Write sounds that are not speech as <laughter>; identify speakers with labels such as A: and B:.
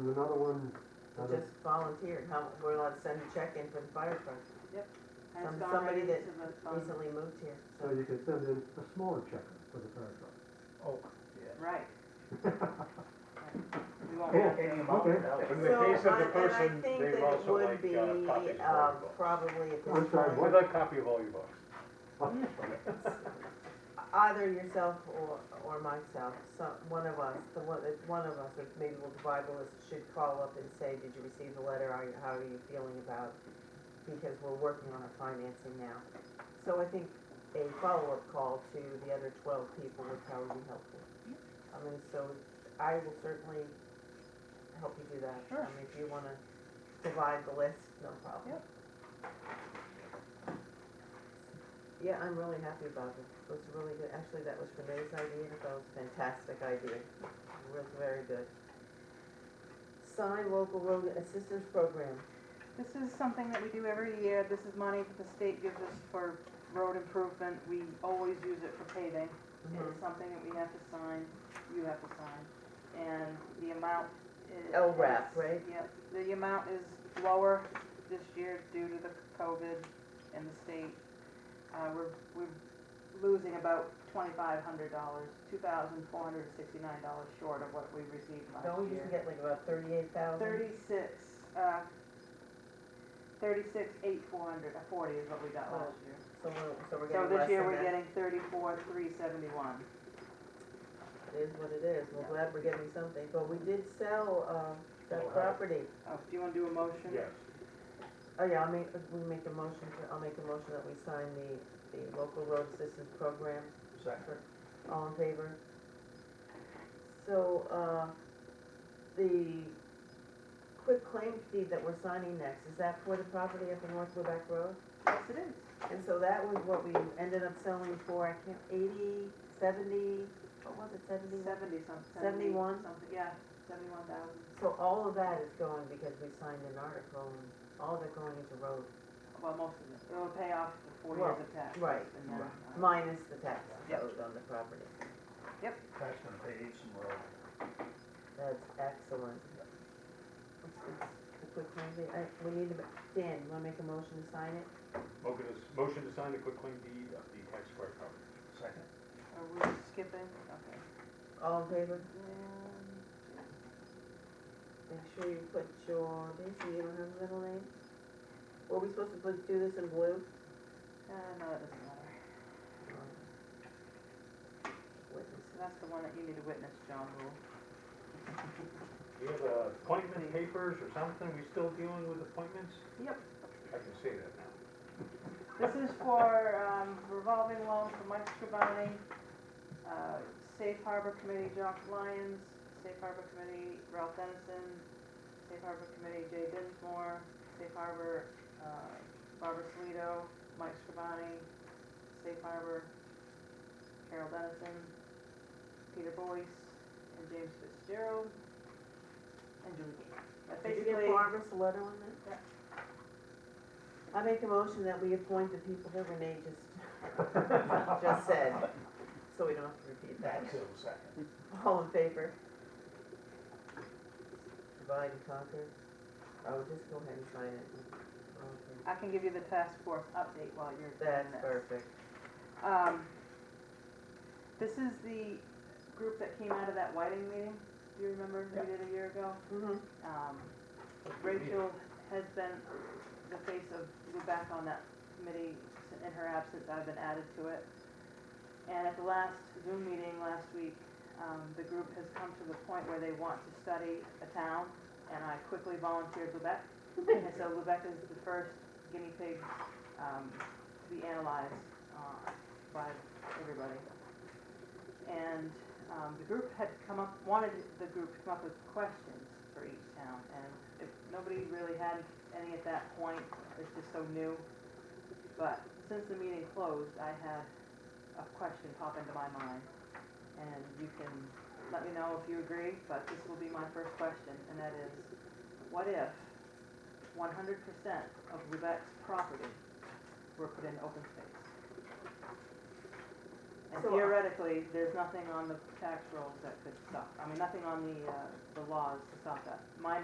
A: There's another one, another,
B: just volunteered, how, we're allowed to send a check in for the fire truck,
C: Has
B: Some-
C: gone
B: somebody that
C: right into the fund.
B: recently moved here, so.
A: so you can send in a smaller check for the fire truck.
D: Oh, yeah.
C: Right. We won't
A: Cool.
C: have to-
D: Any amount
A: Okay.
D: without-
E: In the case
B: So,
E: of the
B: and- and I
E: person,
B: think
E: they
B: that
E: would
B: it
E: also
B: would
E: like
B: be,
E: uh, copies of all
B: um,
E: the books.
B: Probably at
A: I'm
B: this
A: sorry,
B: point,
E: We'd like copy of all your
B: <laughs>
E: books.
B: either yourself or, or myself, some, one of us, the one, if one of us, if maybe we'll divide the list, should call up and say, did you receive the letter, are you, how are you feeling about? Because we're working on our financing now. So I think a follow-up call to the other twelve people would probably be helpful. I mean, so I will certainly help you do that.
C: Sure.
B: I mean, if you wanna divide the list, no problem.
C: Yep.
B: Yeah, I'm really happy about it. It was really good. Actually, that was Renee's idea. and That was a fantastic idea. It was very good. Sign local road assistance program.
C: This is something that we do every year. This is money that the state gives us for road improvement. We always use it for paving.
B: Mm-hmm.
C: It's something that we have to sign, you have to sign, and the amount is.
B: LRAP, right?
C: Yep, the amount is lower this year due to the COVID and the state. Uh, we're, we're losing about twenty-five hundred dollars, two thousand four hundred sixty-nine dollars short of what we received
B: Don't
C: last
B: we used to
C: year.
B: get like about thirty-eight thousand?
C: Thirty-six, uh, thirty-six, eight, four hundred, uh, forty is what we got
B: Oh.
C: last year.
B: So we're, so we're
C: So
B: getting less
C: this year,
B: than
C: we're
B: that.
C: getting thirty-four, three seventy-one.
B: It is what it is. We're glad we're getting something, but we did sell, um, that
E: Wow.
B: property.
C: Oh, do you wanna do a motion?
E: Yes.
B: Oh, yeah, I'll make, we make a motion, to- I'll make a motion that we sign the, the local road assistance program.
D: Second.
B: All in favor? So, uh, the quick claim deed that we're signing next, is that for the property up in North Quebec Road?
C: Yes, it is.
B: And so that was what we ended up selling for, I can't, eighty, seventy, what was it, seventy-one?
C: Seventy something.
B: 71?
C: Something, yeah, seventy-one thousand.
B: So all of that is going because we signed an article and all of it going into road,
C: Well, most of it. It'll pay off the four years of tax.
B: right,
C: and then, uh,
D: right.
B: minus the tax
C: Yep.
B: owed on the property.
D: That's gonna pay Eastern Road.
B: That's excellent. It's- it's a quick claim deed. I- We need to, ma- Dan, you wanna make a motion to sign it?
E: Motion to- Oh, Motion to sign the quitclaim deed of the tax square property.
D: Second.
C: Are we skipping? Okay.
B: All in favor?
C: And-
B: Make sure you put your, basically you don't have a middle name. Were we supposed to put- do this in blue?
C: Uh, no, it doesn't matter.
B: Witness.
C: So that's the one that you need to witness, John Rule.
E: Do you have uh, appointment papers or something? We still dealing with appointments?
C: Yep.
E: I can say that now.
C: This is for um, revolving loan for Mike Scrivani, uh, Safe Harbor Committee, Jock Lyons, Safe Harbor Committee, Ralph Dennison, Safe Harbor Committee, Jay Dinsmore, Safe Harbor, uh, Barbara Salido, Mike Scrivani, Safe Harbor, Carol Dennison, Peter Boyce, and James Fitzgerald, and Julie Gaines. That's
B: Did you get
C: basically,
B: Barbara's letter on that? I make a motion that we appoint the people that Renee
A: <laughs>
B: just, <laughs> just said, so we don't have to repeat that.
D: That's a second.
B: All in favor? Divide and conquer? Oh, just go ahead and sign it. Okay.
C: I can give you the task force update while you're doing
B: That's
C: this.
B: perfect.
C: Um, this is the group that came out of that Whiting meeting, do you remember, we
D: Yeah.
C: did a year ago?
B: Mm-hmm. <laughs>
C: Um, Rachel has been the face of Lubec on that committee. In her absence, I've been added to it. And at the last Zoom meeting last week, um, the group has come to the point where they want to study a town, and I quickly volunteered Lubec. And so Lubec is the first guinea pig um, to be analyzed uh, by everybody. And um, the group had come up, wanted the group to come up with questions for each town, and if, nobody really had any at that point, it's just so new. But since the meeting closed, I had a question pop into my mind, and you can let me know if you agree, but this will be my first question, and that is, what if one hundred percent of Lubec's property were put in open space? And
B: So-
C: theoretically, there's nothing on the tax rolls that could stop, I mean, nothing on the, uh, the laws to stop that. My